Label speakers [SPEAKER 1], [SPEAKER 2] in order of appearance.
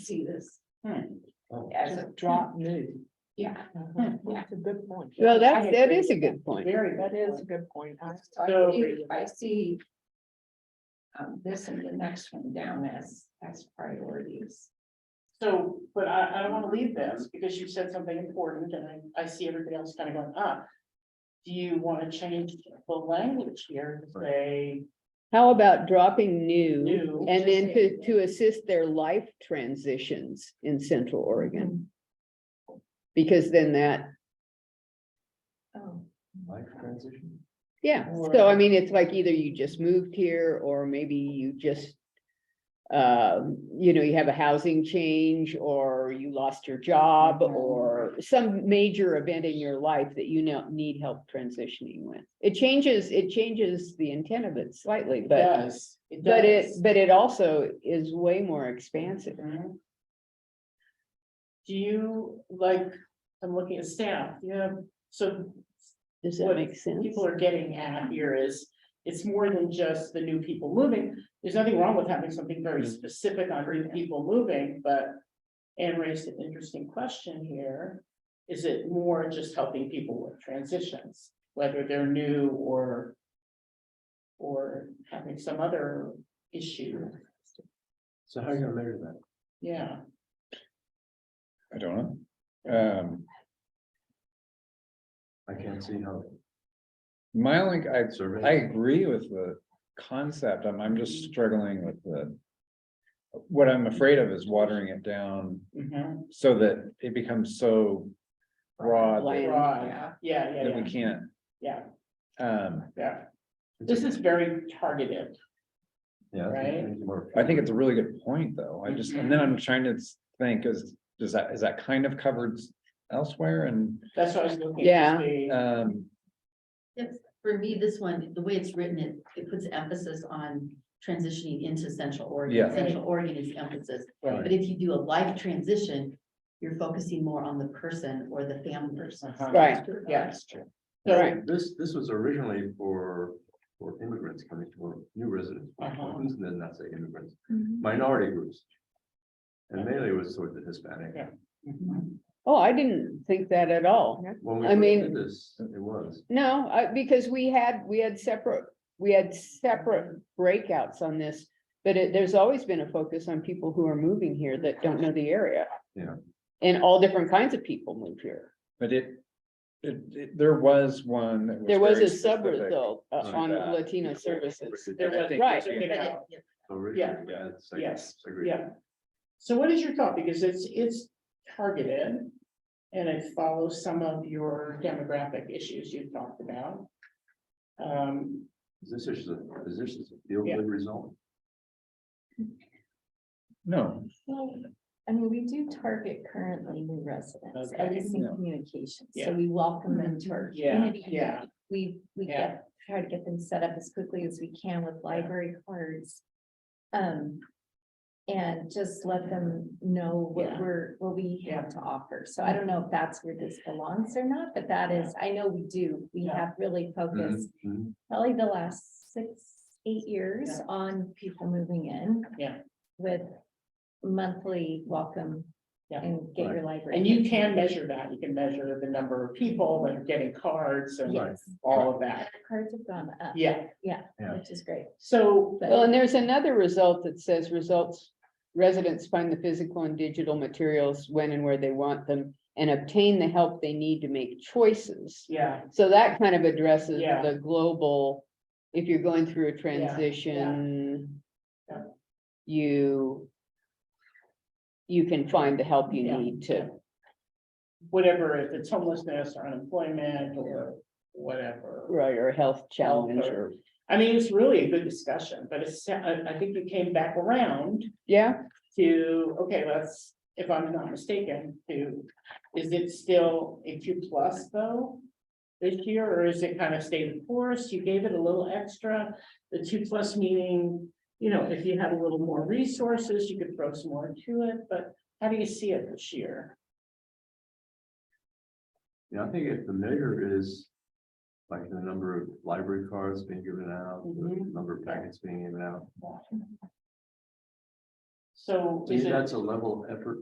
[SPEAKER 1] see this.
[SPEAKER 2] Oh,
[SPEAKER 3] As a drop new.
[SPEAKER 1] Yeah.
[SPEAKER 3] That's a good point.
[SPEAKER 4] Mm-hmm. Well,
[SPEAKER 3] I
[SPEAKER 4] that, that
[SPEAKER 3] agree.
[SPEAKER 4] is a good point.
[SPEAKER 3] Very, that is a good point. I-
[SPEAKER 1] So I
[SPEAKER 3] So-
[SPEAKER 1] see- I see. Um, this and the next one down as, as priorities.
[SPEAKER 5] So, but I, I don't wanna leave this, because you said something important, and I, I see everybody else kinda going, ah. Do you wanna change the language here to say
[SPEAKER 4] How about dropping new
[SPEAKER 5] new?
[SPEAKER 4] and then to, to assist their life transitions in central Oregon? Because then that,
[SPEAKER 1] Oh.
[SPEAKER 2] Life transition?
[SPEAKER 4] yeah, so I
[SPEAKER 5] Or-
[SPEAKER 4] mean, it's like either you just moved here or maybe you just. Um, you know, you have a housing change or you lost your job or some major event in your life that you now need help transitioning with. It changes, it changes the intent of it slightly, but.
[SPEAKER 5] Does, it
[SPEAKER 4] But it,
[SPEAKER 5] does.
[SPEAKER 4] but it also is way more expansive.
[SPEAKER 5] Mhm. Do you, like, I'm looking at staff, you have, so
[SPEAKER 4] Does that
[SPEAKER 5] What
[SPEAKER 4] make sense?
[SPEAKER 5] people are getting at here is, it's more than just the new people moving. There's nothing wrong with having something very
[SPEAKER 2] Mhm.
[SPEAKER 5] specific on new people moving, but Anne raised an interesting question here. Is it more just helping people with transitions, whether they're new or or having some other issue?
[SPEAKER 2] So how are you gonna measure that?
[SPEAKER 5] Yeah,
[SPEAKER 6] I don't know. Um,
[SPEAKER 2] I can't see how.
[SPEAKER 6] my only, I,
[SPEAKER 2] Survey.
[SPEAKER 6] I agree with the concept. I'm, I'm just struggling with the. What I'm afraid of is watering it down
[SPEAKER 5] mhm.
[SPEAKER 6] so that it becomes so broad
[SPEAKER 4] Like-
[SPEAKER 6] that-
[SPEAKER 5] Broad.
[SPEAKER 1] Yeah.
[SPEAKER 5] yeah, yeah,
[SPEAKER 6] that we
[SPEAKER 5] yeah,
[SPEAKER 6] can't,
[SPEAKER 5] yeah,
[SPEAKER 6] um,
[SPEAKER 5] yeah. This is very targeted.
[SPEAKER 2] Yeah. I think
[SPEAKER 5] right?
[SPEAKER 2] we need more-
[SPEAKER 6] I think it's a really good point, though. I just, and then
[SPEAKER 4] Mm-hmm.
[SPEAKER 6] I'm trying to think, is, does that, is that kind of covered elsewhere and,
[SPEAKER 5] That's what I was looking. to
[SPEAKER 4] Yeah.
[SPEAKER 5] see.
[SPEAKER 6] um,
[SPEAKER 7] It's, for me, this one, the way it's written, it, it puts emphasis on transitioning into Central Oregon.
[SPEAKER 6] Yeah.
[SPEAKER 7] Central Oregon is the emphasis,
[SPEAKER 5] Right.
[SPEAKER 7] but if you do a life transition, you're focusing more on the person or the family person.
[SPEAKER 5] Uh-huh.
[SPEAKER 4] Right.
[SPEAKER 5] Yeah, that's
[SPEAKER 7] true.
[SPEAKER 5] So,
[SPEAKER 4] Right.
[SPEAKER 2] This, this was originally for, for immigrants coming to, or new residents,
[SPEAKER 5] Uh-huh.
[SPEAKER 2] who's then not say immigrants,
[SPEAKER 5] Mm-hmm.
[SPEAKER 2] minority groups. And mainly it was sort of the Hispanic.
[SPEAKER 5] Yeah.
[SPEAKER 4] Oh, I didn't think that at all.
[SPEAKER 2] When we
[SPEAKER 4] I
[SPEAKER 2] first
[SPEAKER 4] mean-
[SPEAKER 2] did This, it was.
[SPEAKER 4] No, I, because we had, we had separate, we had separate breakouts on this. But it, there's always been a focus on people who are moving here that don't know the area.
[SPEAKER 2] Yeah.
[SPEAKER 4] And all different kinds of people move here.
[SPEAKER 6] but it. It, it- there was one. that
[SPEAKER 4] There was
[SPEAKER 6] very
[SPEAKER 4] a sub
[SPEAKER 6] specific.
[SPEAKER 4] result uh,
[SPEAKER 2] to
[SPEAKER 4] on
[SPEAKER 6] that.
[SPEAKER 4] Latino services.
[SPEAKER 5] There was-
[SPEAKER 4] Right.
[SPEAKER 5] Yeah.
[SPEAKER 2] Originally, we
[SPEAKER 6] Yeah.
[SPEAKER 2] had segments,
[SPEAKER 5] Yes.
[SPEAKER 2] segregation.
[SPEAKER 5] Yeah. So what is your thought? Because it's, it's targeted. And it follows some of your demographic issues you've talked about. Um,
[SPEAKER 2] Is This is, a- is this is a field
[SPEAKER 5] Yeah.
[SPEAKER 2] good result?
[SPEAKER 6] No,
[SPEAKER 1] Well, I mean, we do target currently new residents, at
[SPEAKER 5] Okay.
[SPEAKER 1] least in
[SPEAKER 6] Yeah.
[SPEAKER 1] communication,
[SPEAKER 5] Yeah.
[SPEAKER 1] so we welcome them to our
[SPEAKER 5] Yeah,
[SPEAKER 1] community.
[SPEAKER 5] yeah.
[SPEAKER 1] We, we
[SPEAKER 5] Yeah.
[SPEAKER 1] get, try to get them set up as quickly as we can with library cards. Um, and just let them know what
[SPEAKER 5] Yeah.
[SPEAKER 1] we're, what we
[SPEAKER 5] Yeah.
[SPEAKER 1] have to offer, so I don't know if that's where this belongs or not, but that is, I know we do, we
[SPEAKER 5] Yeah.
[SPEAKER 1] have really focused
[SPEAKER 2] Mhm.
[SPEAKER 1] probably the last six, eight years
[SPEAKER 5] Yeah.
[SPEAKER 1] on people moving in.
[SPEAKER 5] Yeah.
[SPEAKER 1] With monthly welcome
[SPEAKER 5] Yeah.
[SPEAKER 1] and get your library.
[SPEAKER 5] and you can measure that. You can measure the number of people and getting cards and
[SPEAKER 1] Yes,
[SPEAKER 5] all of that.
[SPEAKER 1] cards have gone up,
[SPEAKER 5] Yeah,
[SPEAKER 2] Yeah.
[SPEAKER 1] which is great.
[SPEAKER 5] so.
[SPEAKER 1] but-
[SPEAKER 4] Well, and there's another result that says results, residents find the physical and digital materials when and where they want them and obtain the help they need to make choices.
[SPEAKER 5] Yeah,
[SPEAKER 4] So that kind of addresses
[SPEAKER 5] Yeah.
[SPEAKER 4] the global, if you're going through a transition.
[SPEAKER 5] Yeah.
[SPEAKER 4] You. You can find the help you
[SPEAKER 5] Yeah.
[SPEAKER 4] need to,
[SPEAKER 5] whatever, if it's homelessness or unemployment or whatever.
[SPEAKER 4] right, or health challenge
[SPEAKER 5] or-
[SPEAKER 4] or,
[SPEAKER 5] I mean, it's really a good discussion, but it's, I, I think you came back around
[SPEAKER 4] yeah,
[SPEAKER 5] to, okay, let's, if I'm not mistaken, to, is it still a two plus though? This year, or is it kind of stayed the course? You gave it a little extra, the two plus meaning, you know, if you had a little more resources, you could throw some more into it, but how do you see it this year?
[SPEAKER 2] Yeah, I think if the measure is like the number of library cards being given out, the
[SPEAKER 5] Mhm.
[SPEAKER 2] number of packets being given out.
[SPEAKER 5] So
[SPEAKER 2] To me,
[SPEAKER 5] is it?
[SPEAKER 2] that's a level effort